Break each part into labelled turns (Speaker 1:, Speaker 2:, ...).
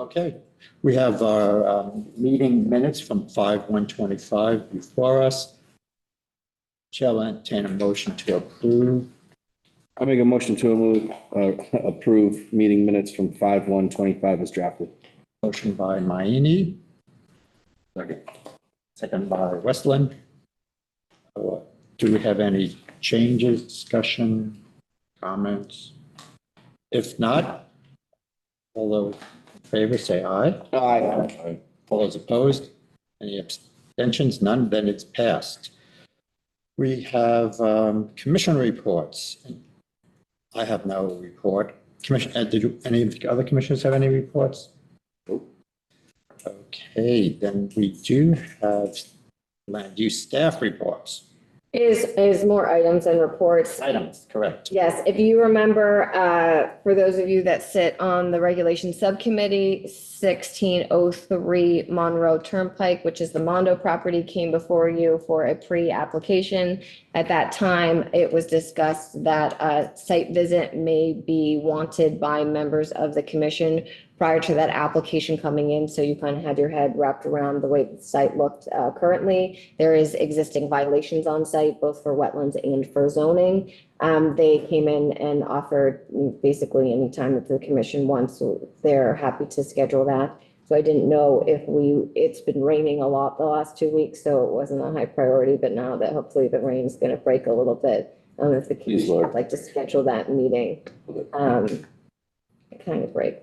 Speaker 1: Okay, we have our um, meeting minutes from 5, 125 before us. Chair will entertain a motion to approve.
Speaker 2: I make a motion to remove, uh, approve meeting minutes from five one twenty-five as drafted.
Speaker 1: Motion by Mayini,
Speaker 2: Second.
Speaker 1: second by Westland. Uh, Do we have any changes, discussion, comments? If not, all those in favor say aye.
Speaker 2: Aye.
Speaker 1: All those opposed? Any abstentions? None, then it's passed. We have um, commission reports. I have no report. Commission, uh, did you, any of the other commissioners have any reports? Okay, then we do have land use staff reports.
Speaker 3: Is, is more items and reports.
Speaker 1: Items, correct.
Speaker 3: Yes, if you remember, uh, for those of you that sit on the Regulation Subcommittee, 1603 Monroe Turnpike, which is the Mondo property, came before you for a pre-application. At that time, it was discussed that a site visit may be wanted by members of the commission prior to that application coming in, so you kind of had your head wrapped around the way the site looked uh, currently. There is existing violations on site, both for wetlands and for zoning. Um, They came in and offered basically any time that the commission wants, so they're happy to schedule that. So I didn't know if we, it's been raining a lot the last two weeks, so it wasn't a high priority, but now that hopefully the rain's going to break a little bit, um, if the
Speaker 2: Please,
Speaker 3: commission
Speaker 2: Lord.
Speaker 3: would like to schedule that meeting. um, Kind of break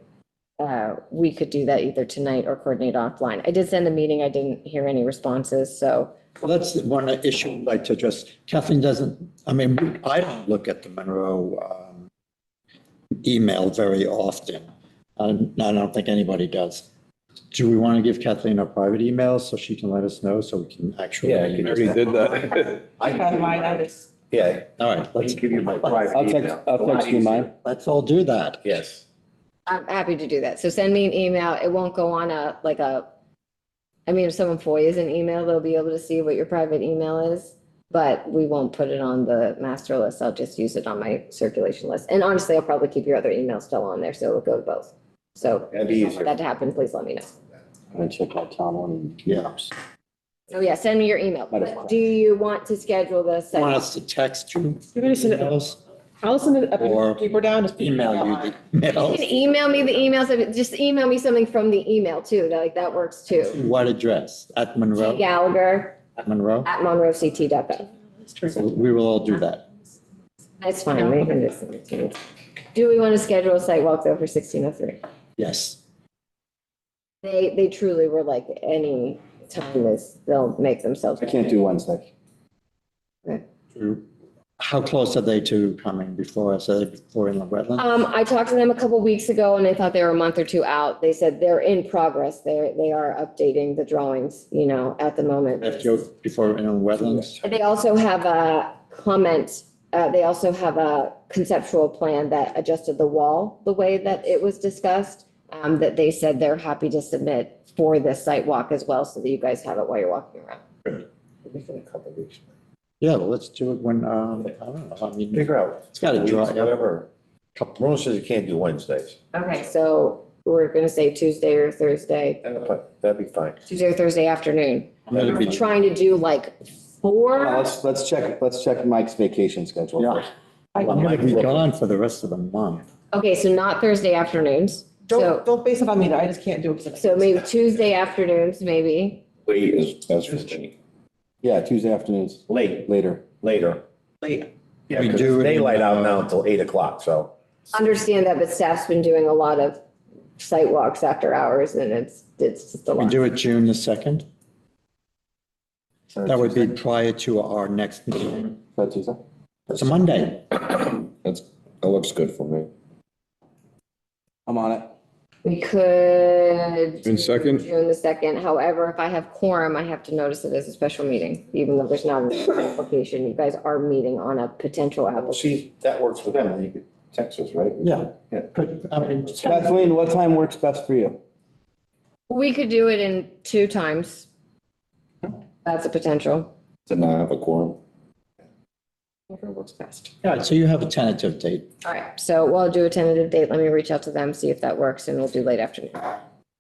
Speaker 3: uh, we could do that either tonight or coordinate offline. I did send a meeting. I didn't hear any responses, so.
Speaker 1: Well, that's the one issue I'd like to address. Kathleen doesn't, I mean, I don't look at the Monroe um, email very often. And I don't think anybody does. Do we want to give Kathleen our private email so she can let us know so we can actually?
Speaker 4: Yeah, I can
Speaker 5: already did that.
Speaker 4: I have mine, I just.
Speaker 5: Yeah.
Speaker 1: All right,
Speaker 5: Let's
Speaker 1: let's,
Speaker 5: give you my
Speaker 1: private
Speaker 5: private
Speaker 2: I'll text, I'll text you mine.
Speaker 1: let's all do that.
Speaker 5: Yes.
Speaker 3: I'm happy to do that. So send me an email. It won't go on a, like a, I mean, if someone FOIA's an email, they'll be able to see what your private email is. But we won't put it on the master list. I'll just use it on my circulation list. And honestly, I'll probably keep your other email still on there, so it'll go to both. So
Speaker 2: That'd be
Speaker 3: if you want
Speaker 2: easier.
Speaker 3: that to happen, please let me know.
Speaker 2: I'm gonna check out Tom on.
Speaker 1: Yeah.
Speaker 3: So yeah, send me your email.
Speaker 2: Might as well.
Speaker 3: Do you want to schedule the? second-
Speaker 1: Want us to text you?
Speaker 4: You're gonna send it,
Speaker 1: emails?
Speaker 4: I'll send it
Speaker 1: Or
Speaker 4: up deeper down, just.
Speaker 1: Email you the
Speaker 3: You can
Speaker 1: emails.
Speaker 3: email me the emails, of it. just email me something from the email too, that- like, that works too.
Speaker 1: What address? At Monroe?
Speaker 3: Gallagher
Speaker 1: At Monroe?
Speaker 3: at monroect.gov.
Speaker 1: So We will all do that.
Speaker 3: That's fine, we can just send it to you. Do we want to schedule a site walk though for sixteen oh three?
Speaker 1: Yes.
Speaker 3: They, they truly were like, any time is, they'll make themselves.
Speaker 2: I can't do Wednesday.
Speaker 1: How close are they to coming before us? Are they before inland wetland?
Speaker 3: Um, I talked to them a couple weeks ago and I thought they were a month or two out. They said they're in progress. They're, they are updating the drawings, you know, at the moment.
Speaker 1: If you're Before inland wetlands?
Speaker 3: They also have a comment, uh, they also have a conceptual plan that adjusted the wall the way that it was discussed. Um, that they said they're happy to submit for this site walk as well, so that you guys have it while you're walking around.
Speaker 1: Yeah, well, let's do it when, um, I don't know, I mean,
Speaker 5: Figure out.
Speaker 1: it's got to dry up.
Speaker 5: Whatever. Ramon says you can't do Wednesdays,
Speaker 3: Okay. So we're gonna say Tuesday or Thursday,
Speaker 5: but that'd be fine.
Speaker 3: Tuesday or Thursday afternoon.
Speaker 1: I'm gonna be-
Speaker 3: Trying to do like
Speaker 2: Now,
Speaker 3: four,
Speaker 2: Uh, let's, let's check, let's check Mike's vacation schedule
Speaker 1: Yeah.
Speaker 2: first.
Speaker 4: I-
Speaker 1: I'm going to be gone for the rest of the month.
Speaker 3: okay, so not Thursday afternoons.
Speaker 4: Don't,
Speaker 3: So,
Speaker 4: don't base it on me, though. I just can't do it. 'cause I-
Speaker 3: so maybe Tuesday afternoons, maybe.
Speaker 5: Late is, that's for me.
Speaker 2: Yeah, Tuesday afternoons,
Speaker 5: Late,
Speaker 2: later.
Speaker 5: later.
Speaker 4: Late.
Speaker 5: Yeah,
Speaker 1: We
Speaker 5: 'cause
Speaker 1: do it in-
Speaker 5: daylight out now until eight o'clock, so.
Speaker 3: understand that, but staff's been doing a lot of site walks after hours and it's, it's just a
Speaker 1: We
Speaker 3: lot.
Speaker 1: do it June the 2nd? That would be prior to our next meeting.
Speaker 2: Is that Tuesday?
Speaker 1: It's a Monday.
Speaker 5: That's, that looks good for me.
Speaker 2: I'm on it.
Speaker 3: We could.
Speaker 6: June 2nd?
Speaker 3: June the second. However, if I have quorum, I have to notice it as a special meeting, even though there's not an application. You guys are meeting on a potential application.
Speaker 5: See, that works for them, you could text us, right?
Speaker 1: Yeah. Good. I mean,
Speaker 2: Kathleen, what time works best for you?
Speaker 3: We could do it in two times. That's a potential.
Speaker 5: Then I have a quorum.
Speaker 4: Whatever works best.
Speaker 1: all right, so you have a tentative date.
Speaker 3: All right, so we'll do a tentative date. Let me reach out to them, see if that works and we'll do late afternoon.